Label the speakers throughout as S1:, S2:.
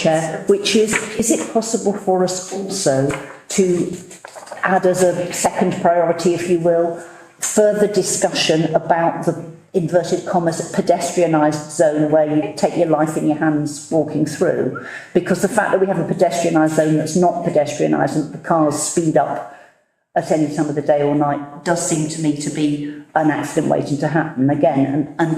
S1: Chair, which is, is it possible for us also to add as a second priority, if you will, further discussion about the inverted commas pedestrianised zone where you take your life in your hands walking through? Because the fact that we have a pedestrianised zone that's not pedestrianised and the cars speed up at any time of the day or night does seem to me to be an accident waiting to happen again. And, and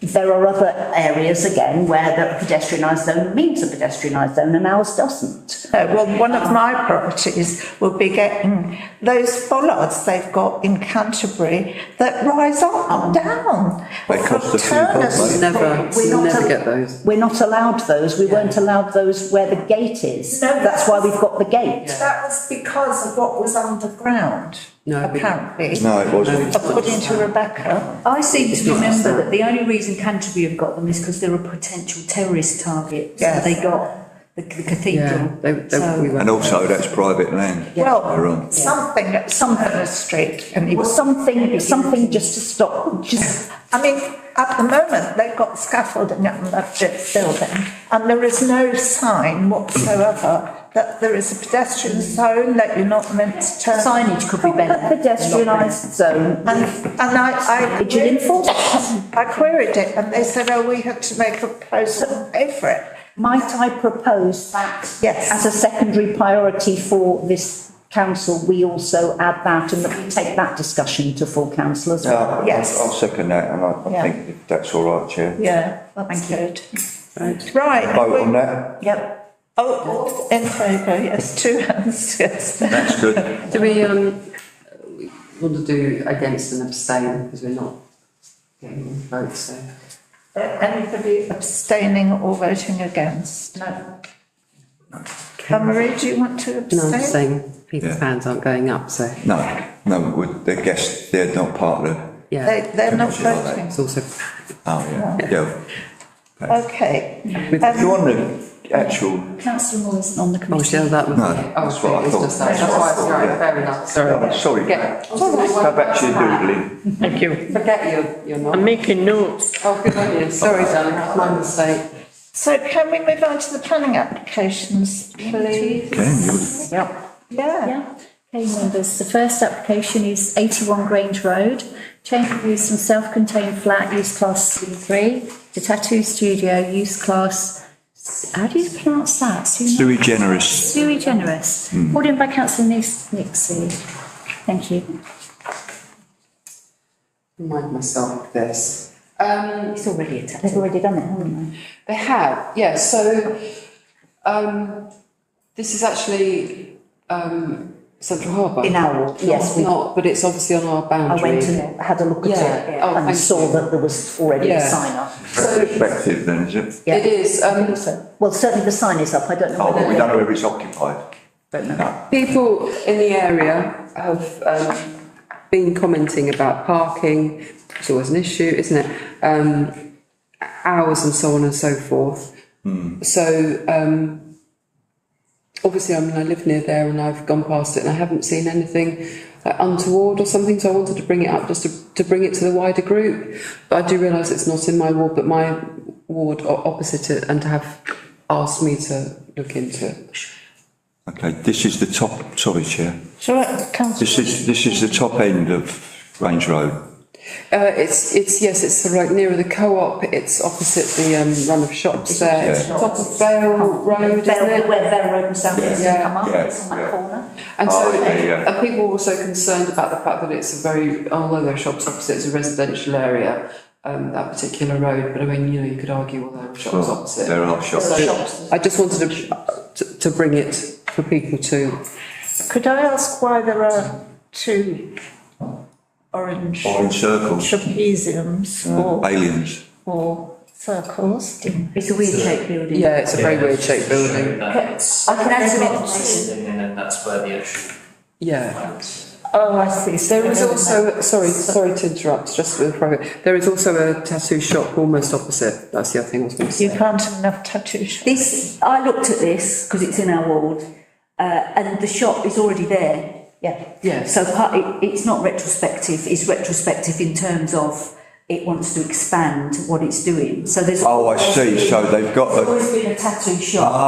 S1: there are other areas again where the pedestrianised zone means a pedestrianised zone and ours doesn't.
S2: No, well, one of my priorities will be getting those bollards they've got in Canterbury that rise up and down.
S3: They cost a few
S2: Turner
S3: bob, mate.
S4: Never,
S1: We're not
S4: never
S1: a-
S4: get those.
S1: We're not allowed those. We weren't allowed those where the gate is.
S2: No,
S1: That's why we've got the gate.
S2: That was because of what was underground,
S4: No, we-
S2: apparently.
S3: No, it wasn't.
S2: According to Rebecca,
S5: I seem
S4: It's
S5: to
S4: not
S5: remember
S4: us,
S5: that the only reason Canterbury have got them is because they're a potential terrorist target. So
S2: Yes.
S5: they got the the
S4: Yeah,
S5: cathedral.
S4: they, they,
S5: So-
S4: we
S3: And
S4: won't.
S3: also, that's private land. They're
S2: well,
S3: on.
S2: something, something was street and he
S1: Or
S2: was
S1: something, something just to stop, just,
S2: I mean, at the moment, they've got scaffolding up in that brick building, and there is no sign whatsoever that there is a pedestrian zone, that you're not meant to turn.
S5: Signage could be better.
S1: pedestrianised zone.
S2: And, and I, I.
S1: Did you enforce it?
S2: I queried it, and they said, oh, we had to make a proposal and pay for it.
S1: Might I propose that?
S2: Yes.
S1: As a secondary priority for this council, we also add that and that we take that discussion to full council as well.
S3: No,
S2: Yes.
S3: I'll I'll second that, and I
S2: Yeah.
S3: I think that's all right, Chair.
S2: Yeah, that's good. Right.
S3: Vote on that,
S2: Yep. Oh, in favour, yes, two hands, yes.
S3: that's good.
S4: Do we, um, we want to do against and abstain because we're not getting votes, so.
S2: Uh, Anybody abstaining or voting against? No. Um, Marie, do you want to
S4: No, I'm
S2: abstain?
S4: saying people's
S3: Yeah.
S4: hands aren't going up, so,
S3: No, no, we- the guests, they're not part of the,
S4: yeah.
S2: They, they're not
S3: Yeah, like that.
S2: voting.
S4: It's also,
S3: oh, yeah, yeah.
S2: Okay.
S4: we've,
S2: Um,
S3: You on the actual,
S5: Councillor Moore isn't on the
S4: oh,
S5: committee.
S4: shall that was.
S3: No,
S4: oh,
S3: that's what I
S4: it was
S3: thought.
S4: just that.
S3: That's what I
S4: That's
S3: thought,
S4: why, right,
S3: yeah.
S4: fair enough,
S3: Oh,
S4: sorry.
S3: sorry,
S4: Get-
S3: go back to your doodling.
S6: Thank you.
S4: Forget you, you're
S6: I'm
S4: not.
S6: making notes.
S4: Oh, good on you, sorry, darling, that's my mistake.
S2: So can we move on to the planning applications, please?
S3: Can you?
S2: Yeah.
S7: Yeah, okay, members, the first application is eighty-one Grange Road, change of use from self-contained flat, use class C three, to tattoo studio, use class, how do you pronounce that? Sui
S3: Sui generis.
S7: sui generis,
S4: Hmm.
S7: Called in by councillor Nis- Nixie, thank you.
S4: Remind myself of this. Um,
S5: It's already attached.
S1: They've already done it, haven't they?
S4: They have, yeah. So um, this is actually um, Central Harbour.
S1: In our ward, yes,
S4: Not-
S1: we-
S4: Not, but it's obviously on our
S1: I
S4: boundary.
S1: went and had a look at it
S4: Yeah. Oh,
S1: and
S4: thank
S1: saw
S4: you.
S1: that there was already a
S4: Yeah.
S1: sign up.
S3: Effective then, is it?
S1: Yeah.
S4: It is. Um,
S1: Well, certainly the sign is up, I don't know.
S3: Oh,
S1: whether
S3: but we
S1: they-
S3: don't know if it's occupied.
S1: Don't know.
S4: people in the area have um, been commenting about parking. It's always an issue, isn't it? Um, hours and so on and so forth. So um, obviously, I mean, I live near there and I've gone past it and I haven't seen anything like, untoward or something. So I wanted to bring it up just to, to bring it to the wider group. But I do realise it's not in my ward, but my ward o- opposite it, and to have asked me to look into it.
S3: Okay, this is the top, sorry, Chair.
S2: So, uh, councillor,
S3: This is, this is the top end of Range Road.
S4: Uh, it's it's yes, it's sort of like nearer the co-op. It's opposite the um, run of shops there. It's top of Vale Road, isn't
S1: Bell-
S4: it?
S1: Where Bell Road and South East
S4: Yeah.
S1: come up,
S3: Yeah.
S1: it's on
S3: Yeah.
S1: that corner.
S4: And
S3: Oh,
S4: so,
S3: okay, yeah.
S4: and people were also concerned about the fact that it's a very although there are shops opposite, it's a residential area. Um, that particular road, but I mean, you know, you could argue well, there are shops
S3: Well,
S4: opposite.
S3: There are shops.
S4: So I just wanted to, to to bring it for people to
S2: could I ask why there are two orange
S3: Or in circles,
S2: trapeziums
S3: uh,
S2: or,
S3: aliens.
S2: or circles?
S5: It's a weird shaped building.
S4: yeah, it's a very weird shaped building.
S5: I can add some information.
S8: And then that's where the actual
S4: Yeah.
S8: plans.
S2: Oh, I see.
S4: There is also, sorry, sorry to interrupt, just with private, there is also a tattoo shop almost opposite, that's the other thing I was going to
S2: You
S4: say.
S2: can't have enough tattoo shops.
S5: This, I looked at this because it's in our ward, uh, and the shop is already there.
S1: Yeah.
S4: Yes,
S5: So part, it, it's not retrospective, it's retrospective in terms of it wants to expand what it's doing. So there's.
S3: Oh, I Oh, see, so they've got a
S5: Always been a tattoo shop.